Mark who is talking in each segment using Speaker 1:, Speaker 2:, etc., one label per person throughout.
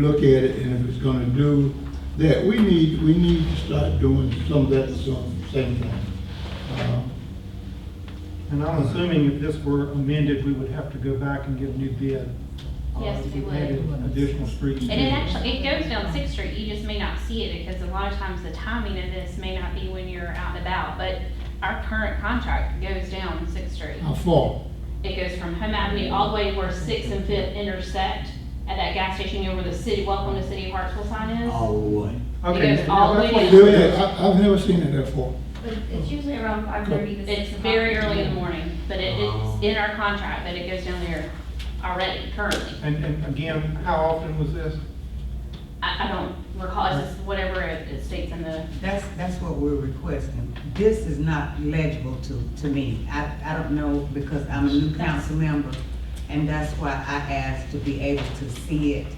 Speaker 1: look at it, and if it's gonna do that, we need, we need to start doing some of that at some same time. Uh,
Speaker 2: And I'm assuming if this were amended, we would have to go back and get a new bid. uh,
Speaker 3: Yes,
Speaker 2: if
Speaker 3: we would.
Speaker 2: added Additional streets.
Speaker 3: And it actually, it goes down Sixth Street, you just may not see it, because a lot of times the timing of this may not be when you're out and about, but our current contract goes down Sixth Street.
Speaker 1: How far?
Speaker 3: It goes from Home Avenue all the way where Sixth and Fifth intersect, at that gas station, you know, where the city, welcome to City of Hartsville sign is.
Speaker 4: all the way.
Speaker 2: Okay,
Speaker 3: goes
Speaker 2: so
Speaker 3: all the
Speaker 2: that's
Speaker 3: way
Speaker 2: what
Speaker 3: down.
Speaker 2: you
Speaker 1: Yeah,
Speaker 2: said.
Speaker 1: yeah, I, I've never seen it that far.
Speaker 5: But it's usually around five thirty to six
Speaker 3: It's
Speaker 5: o'clock.
Speaker 3: very early in the morning, but it, it's in our contract, that it goes down there already, currently.
Speaker 2: And, and again, how often was this?
Speaker 3: I, I don't recall, it's just whatever it it states in the
Speaker 6: That's, that's what we're requesting. This is not legible to, to me. I, I don't know, because I'm a new council member, and that's why I asked to be able to see it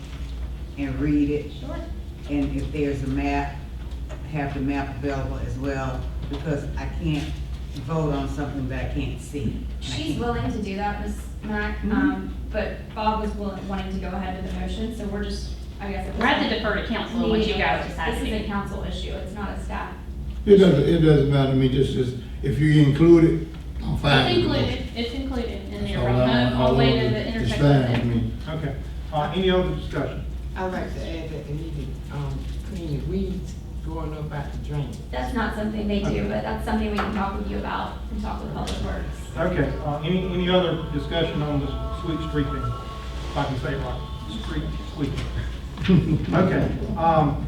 Speaker 6: and read it,
Speaker 3: Sure.
Speaker 6: and if there's a map, have the map available as well, because I can't vote on something that I can't see.
Speaker 5: She's willing to do that, Ms. Mack, um, but Bob was willing, wanting to go ahead with the motion, so we're just, I guess. at this
Speaker 3: We're at the
Speaker 5: point,
Speaker 3: defer to council on what you guys decide to
Speaker 5: This is a
Speaker 3: do.
Speaker 5: council issue, it's not a staff.
Speaker 1: It doesn't, it doesn't matter to me, just as, if you include it, I'm
Speaker 3: It's
Speaker 1: fine. with it.
Speaker 3: included, it's included in the
Speaker 1: That's all I-
Speaker 3: remote, all the way to the
Speaker 1: it's
Speaker 3: intersection.
Speaker 1: fine with me.
Speaker 2: Okay, uh, any other discussion?
Speaker 7: I'd like to add that they need to, um, clean the weeds growing up out the drain.
Speaker 5: That's not something they do, but that's something we can talk with you about and talk with Public Works.
Speaker 2: Okay, uh, any, any other discussion on this sweet street thing? If I can say it right, street sweet. Okay, um,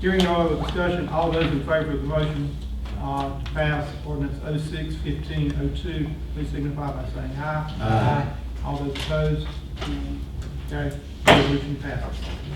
Speaker 2: hearing no other discussion, all those in favor of the motion, uh, to pass ordinance oh six fifteen oh two, please signify by saying aye.
Speaker 1: Aye.
Speaker 2: All those opposed? Okay, resolution passes.